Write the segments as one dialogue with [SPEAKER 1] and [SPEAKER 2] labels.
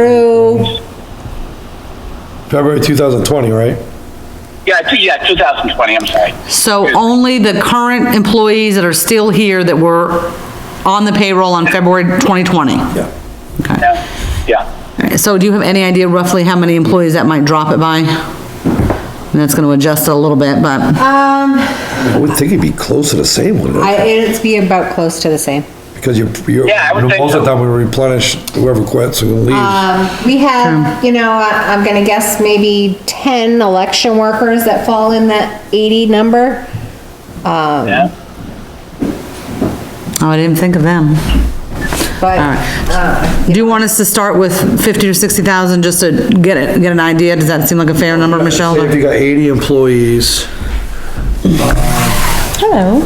[SPEAKER 1] through,
[SPEAKER 2] February 2020, right?
[SPEAKER 3] Yeah, two- yeah, 2020, I'm sorry.
[SPEAKER 4] So only the current employees that are still here that were on the payroll on February 2020?
[SPEAKER 2] Yeah.
[SPEAKER 4] Okay.
[SPEAKER 3] Yeah, yeah.
[SPEAKER 4] All right, So do you have any idea roughly how many employees that might drop it by? And that's gonna adjust it a little bit, but,
[SPEAKER 1] um,
[SPEAKER 2] I would think it'd be close to the same one, right?
[SPEAKER 1] I, it'd be about close to the same.
[SPEAKER 2] because you're, you're,
[SPEAKER 3] Yeah, I would think
[SPEAKER 2] most of the
[SPEAKER 3] so.
[SPEAKER 2] time we replenish whoever quits who leaves.
[SPEAKER 1] Um, we have, you know, I- I'm gonna guess maybe ten election workers that fall in that eighty number.
[SPEAKER 3] yeah.
[SPEAKER 4] oh, I didn't think of them.
[SPEAKER 1] But,
[SPEAKER 4] All right.
[SPEAKER 1] uh,
[SPEAKER 4] Do you want us to start with 50 to 60,000 just to get it, get an idea? Does that seem like a fair number, Michelle?
[SPEAKER 2] Say If you got 80 employees,
[SPEAKER 1] hello.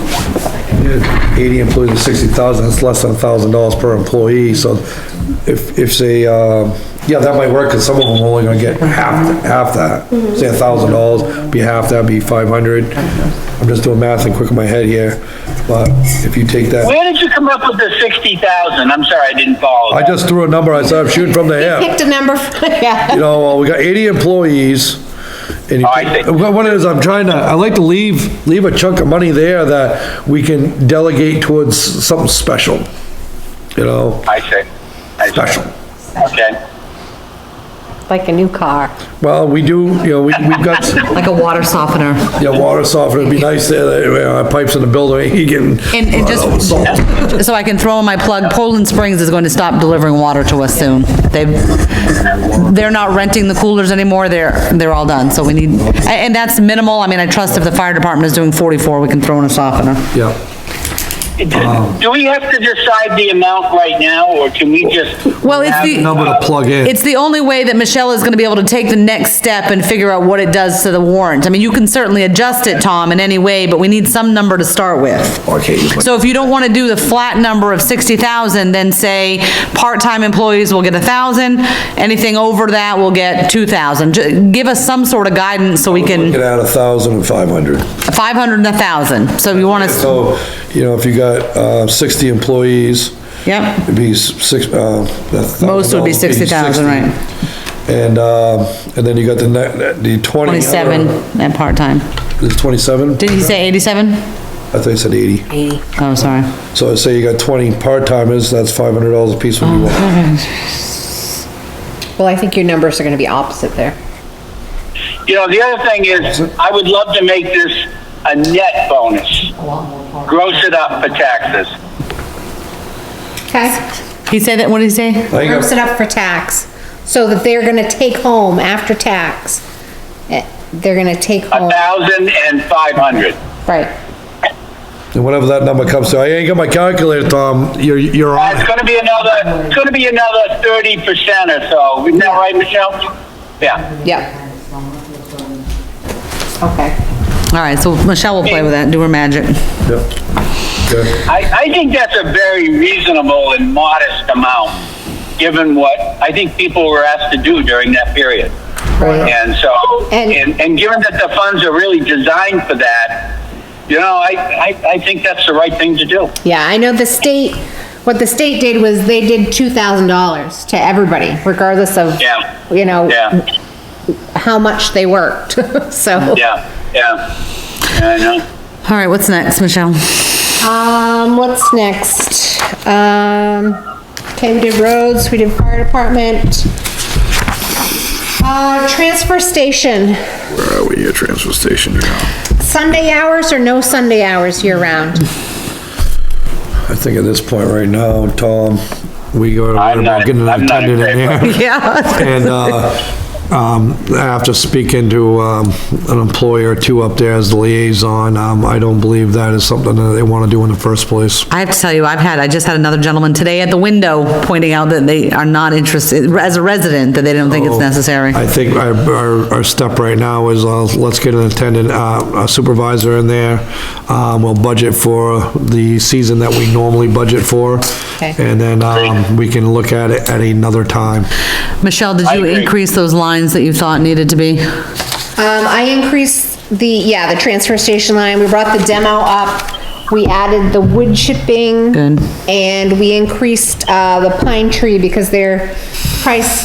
[SPEAKER 2] you had 80 employees and 60,000, that's less than $1,000 per employee, so if, if say, um, yeah, that might work, because some of them are only gonna get half, half that. Say $1,000, be half that, be 500. I'm just doing math and quick in my head here, but if you take that,
[SPEAKER 3] Where did you come up with the 60,000? I'm sorry, I didn't follow.
[SPEAKER 2] I
[SPEAKER 3] that.
[SPEAKER 2] just threw a number, I said, I'm shooting from the hip.
[SPEAKER 1] Picked a number, for- yeah.
[SPEAKER 2] you know, well, we got 80 employees. and you-
[SPEAKER 3] Oh, I see.
[SPEAKER 2] What what it is, I'm trying to, I like to leave, leave a chunk of money there that we can delegate towards something special, you know,
[SPEAKER 3] I see. I see.
[SPEAKER 2] special.
[SPEAKER 3] Okay.
[SPEAKER 1] Like a new car.
[SPEAKER 2] Well, we do, you know, we, we've got,
[SPEAKER 4] Like a water softener?
[SPEAKER 2] yeah, water softener, it'd be nice there, that, you know, our pipes in the building, you can.
[SPEAKER 4] And, and just, so I can throw in my plug, Poland Springs is going to stop delivering water to us soon. They, they're not renting the coolers anymore, they're, they're all done, so we need, and, and that's minimal, I mean, I trust if the fire department is doing forty-four, we can throw in a softener.
[SPEAKER 2] Yeah.
[SPEAKER 3] Do we have to decide the amount right now, or can we just?
[SPEAKER 4] Well, it's
[SPEAKER 3] have,
[SPEAKER 4] the-
[SPEAKER 2] Number to
[SPEAKER 3] uh,
[SPEAKER 2] plug in.
[SPEAKER 4] It's the only way that Michelle is gonna be able to take the next step and figure out what it does to the warrant. I mean, you can certainly adjust it, Tom, in any way, but we need some number to start with.
[SPEAKER 2] Okay.
[SPEAKER 4] So if you don't want to do the flat number of 60,000, then say, part-time employees will get a 1,000, anything over that will get 2,000. Ju- Give us some sort of guidance so we
[SPEAKER 2] Get
[SPEAKER 4] can,
[SPEAKER 2] out a thousand and five hundred.
[SPEAKER 4] 500 and 1,000, so you want to,
[SPEAKER 2] So, you know, if you got, uh, sixty employees,
[SPEAKER 4] yep,
[SPEAKER 2] It'd be s- six, uh. a
[SPEAKER 4] Most would be
[SPEAKER 2] thousand dollars,
[SPEAKER 4] 60,000, right.
[SPEAKER 2] 60. And, um, and then you got the net, the twenty.
[SPEAKER 4] 27 at part-time.
[SPEAKER 2] Is twenty-seven?
[SPEAKER 4] Did he say 87?
[SPEAKER 2] I thought you said eighty.
[SPEAKER 4] Oh, sorry.
[SPEAKER 2] So I say you got twenty part-timers, that's five hundred dollars a piece when you
[SPEAKER 4] Oh.
[SPEAKER 2] want.
[SPEAKER 1] Well, I think your numbers are gonna be opposite there.
[SPEAKER 3] You know, the other thing is, I would love to make this a net bonus. Gross it up for taxes.
[SPEAKER 1] Okay.
[SPEAKER 4] He said that, what did he say?
[SPEAKER 2] I think
[SPEAKER 1] Gross
[SPEAKER 2] I'm-
[SPEAKER 1] it up for tax, so that they're gonna take home after tax. eh, They're gonna take
[SPEAKER 3] A
[SPEAKER 4] Oh.
[SPEAKER 1] home,
[SPEAKER 3] thousand and five hundred.
[SPEAKER 1] right.
[SPEAKER 2] And whatever that number comes to, I ain't got my calculator, Tom, you're, you're on.
[SPEAKER 3] Uh, It's
[SPEAKER 2] it.
[SPEAKER 3] gonna be another, it's gonna be another thirty percent or so. Isn't that right, Michelle? Yeah.
[SPEAKER 1] Yep. Okay.
[SPEAKER 4] All right, so Michelle will play with that, do her magic.
[SPEAKER 2] Yep. Okay.
[SPEAKER 3] I, I think that's a very reasonable and modest amount, given what I think people were asked to do during that period. And so,
[SPEAKER 1] And-
[SPEAKER 3] and, and given that the funds are really designed for that, you know, I, I, I think that's the right thing to do.
[SPEAKER 1] Yeah, I know the state, what the state did was they did two thousand dollars to everybody, regardless of,
[SPEAKER 3] Yeah.
[SPEAKER 1] you know,
[SPEAKER 3] Yeah.
[SPEAKER 1] how much they worked, so.
[SPEAKER 3] Yeah, yeah. Yeah, I know.
[SPEAKER 4] All right, what's next, Michelle?
[SPEAKER 1] Um, what's next? Um, okay, we did roads, we did fire department. Uh, transfer station,
[SPEAKER 5] Where are we at transfer station now?
[SPEAKER 1] Sunday hours or no Sunday hours year round?
[SPEAKER 2] I think at this point right now, Tom, we gotta worry
[SPEAKER 3] I'm
[SPEAKER 2] about
[SPEAKER 3] not-
[SPEAKER 2] getting an
[SPEAKER 3] I'm not in
[SPEAKER 2] attendant in
[SPEAKER 3] favor.
[SPEAKER 2] there.
[SPEAKER 4] Yeah.
[SPEAKER 2] And, uh, um, after speaking to, um, an employer or two up there as the liaison, um, I don't believe that is something that they wanna do in the first place.
[SPEAKER 4] I have to tell you, I've had, I just had another gentleman today at the window pointing out that they are not interested, as a resident, that they don't think it's necessary.
[SPEAKER 2] Oh, I think our, our, our step right now is, uh, let's get an attendant, uh, a supervisor in there. Um, we'll budget for the season that we normally budget for.
[SPEAKER 1] Okay.
[SPEAKER 2] And then, um, we can look at it at another time.
[SPEAKER 4] Michelle, did
[SPEAKER 3] I
[SPEAKER 4] you
[SPEAKER 3] agree.
[SPEAKER 4] increase those lines that you thought needed to be?
[SPEAKER 1] Um, I increased the, yeah, the transfer station line, we brought the demo up, we added the wood chipping.
[SPEAKER 4] Good.
[SPEAKER 1] And we increased, uh, the pine tree because they're price